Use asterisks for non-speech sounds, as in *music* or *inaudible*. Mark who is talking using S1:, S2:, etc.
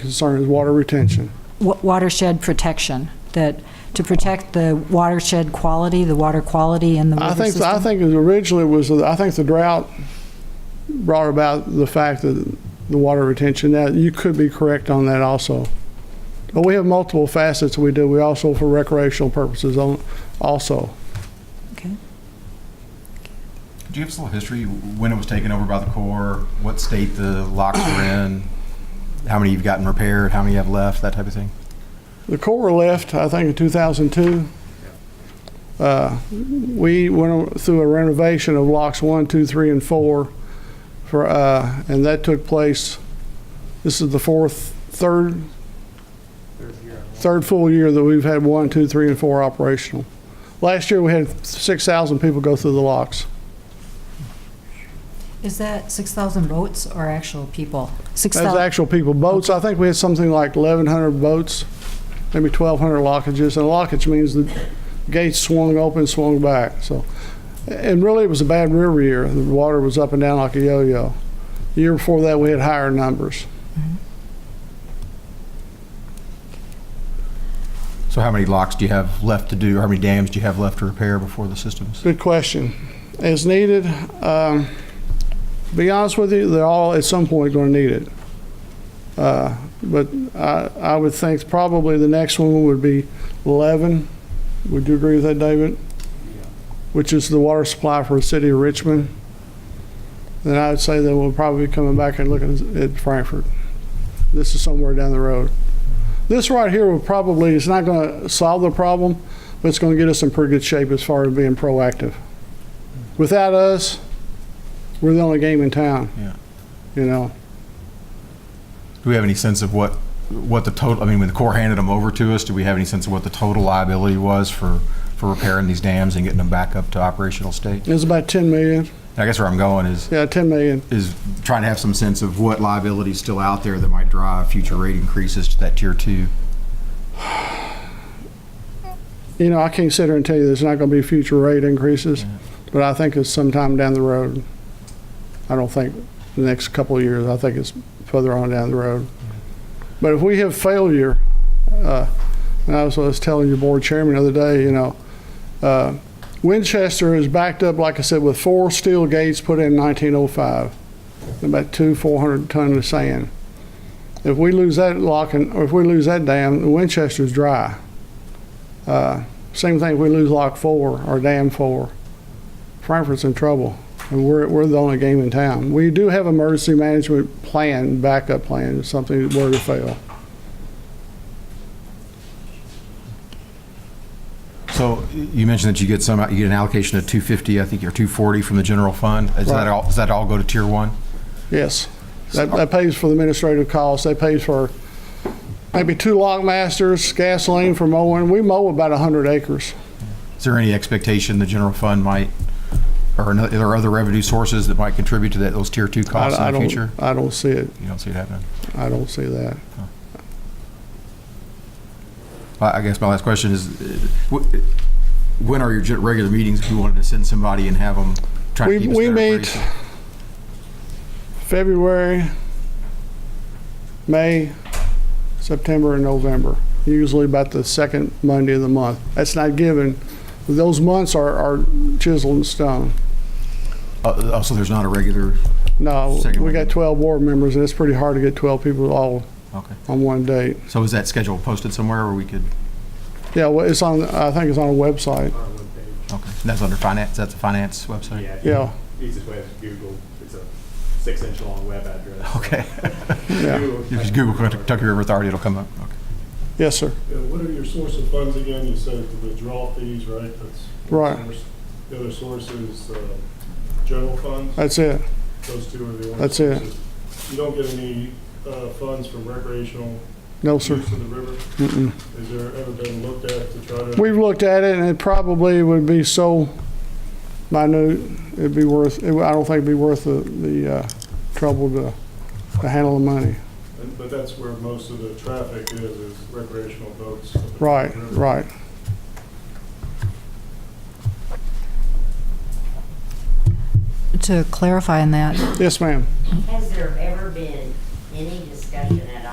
S1: concern is water retention.
S2: wa- watershed protection, that to protect the watershed quality, the water quality in the
S1: I
S2: river
S1: think, I
S2: system?
S1: think it originally was, I think the drought brought about the fact that the water retention, now, you could be correct on that also. But we have multiple facets we do, we also for recreational purposes on, also.
S2: Okay.
S3: Do you have a little history, when it was taken over by the Corps, what state the locks were in, how many you've gotten repaired, how many you have left, that type of thing?
S1: The Corps left, I think, in 2002. Uh, We went through a renovation of locks one, two, three, and 4, for, uh, and that took place, this is the fourth, third, third full year that we've had one, two, three, and 4 operational. Last year, we had 6,000 people go through the locks.
S2: Is that 6,000 boats or actual people?
S1: That's
S2: 6,000,
S1: actual people. Boats, I think we had something like 1,100 boats, maybe 1,200 lockages. And a lockage means the gates swung open, swung back, so. And really, it was a bad river year. The water was up and down like a yo-yo. The year before that, we had higher numbers.
S3: So how many locks do you have left to do, or how many dams do you have left to repair before the system's?
S1: Good question. As needed, um, to be honest with you, they're all at some point going to need it. Uh, But I, I would think probably the next one would be 11. Would you agree with that, David? Which is the water supply for the city of Richmond. Then I would say that we'll probably be coming back and looking at Frankfurt. This is somewhere down the road. This right here will probably, it's not going to solve the problem, but it's going to get us in pretty good shape as far as being proactive. Without us, we're the only game in town.
S3: Yeah.
S1: You know,
S3: Do we have any sense of what, what the total, I mean, when the Corps handed them over to us, do we have any sense of what the total liability was for, for repairing these dams and getting them back up to operational state?
S1: it's about 10 million.
S3: I guess where I'm going is,
S1: Yeah, 10 million.
S3: is trying to have some sense of what liability is still out there that might drive future rate increases to that tier two.
S1: You know, I can't sit here and tell you there's not going to be future rate increases, but I think it's sometime down the road. I don't think the next couple of years, I think it's further on down the road. But if we have failure, uh, and I was, I was telling your board chairman the other day, you know, uh, Winchester is backed up, like I said, with four steel gates put in 1905, and about two 400 ton of sand. If we lose that lock and, or if we lose that dam, Winchester's dry. Uh, Same thing, if we lose Lock 4 or Dam 4, Frankfurt's in trouble, and we're, we're the only game in town. We do have emergency management plan, backup plan, if something were to fail.
S3: So you mentioned that you get some, you get an allocation of 250, I think, or 240 from the general fund. Is
S1: Right.
S3: that all, does that all go to tier one?
S1: Yes. That, that pays for the administrative costs, that pays for maybe two lock masters, gasoline for mowing. We mow about 100 acres.
S3: Is there any expectation the general fund might, or ano- are there other revenue sources that might contribute to that, those tier two
S1: I-
S3: costs
S1: I
S3: in the
S1: don't-
S3: future?
S1: I don't see it,
S3: You don't see it happening?
S1: I don't see that.
S3: I I guess my last question is, uh, wh- when are your gen- regular meetings? If you wanted to send somebody and have them try to
S1: We,
S3: keep us
S1: we
S3: better
S1: meet
S3: appraised?
S1: February, May, September, and November, usually about the second Monday of the month. That's not given. Those months are, are chiseled in stone.
S3: Uh, uh, So there's not a regular,
S1: No,
S3: Second
S1: we
S3: Monday.
S1: got 12 board members, and it's pretty hard to get 12 people all
S3: okay.
S1: on one date.
S3: So is that schedule posted somewhere where we could,
S1: Yeah, well, it's on, I think it's on a website.
S3: okay, that's under finance, that's a finance website?
S4: Yeah.
S1: Yeah.
S4: Easiest way is Google. It's a six-inch long web address.
S3: Okay.
S1: *laughs*
S3: *laughs*
S1: Yeah,
S4: Google-
S3: If you just Google Kentucky River Authority, it'll come up, okay.
S1: yes, sir.
S5: Yeah, what are your source of funds again? You said the withdrawal fees, right? That's one
S1: Right.
S5: source. The other source is uh, general funds.
S1: That's it.
S5: Those two are the only
S1: That's it.
S5: sources. You don't get any uh, funds from recreational
S1: No,
S5: use
S1: sir.
S5: in the river?
S1: Mm-mm.
S5: Has there ever been looked at to try to?
S1: We've looked at it, and it probably would be so minute, it'd be worth, it- I don't think it'd be worth the, the uh, trouble to, to handle the money.
S5: And- But that's where most of the traffic is, is recreational boats.
S1: Right, right.
S2: to clarify on that,
S1: Yes, ma'am.
S6: Has there ever been any discussion at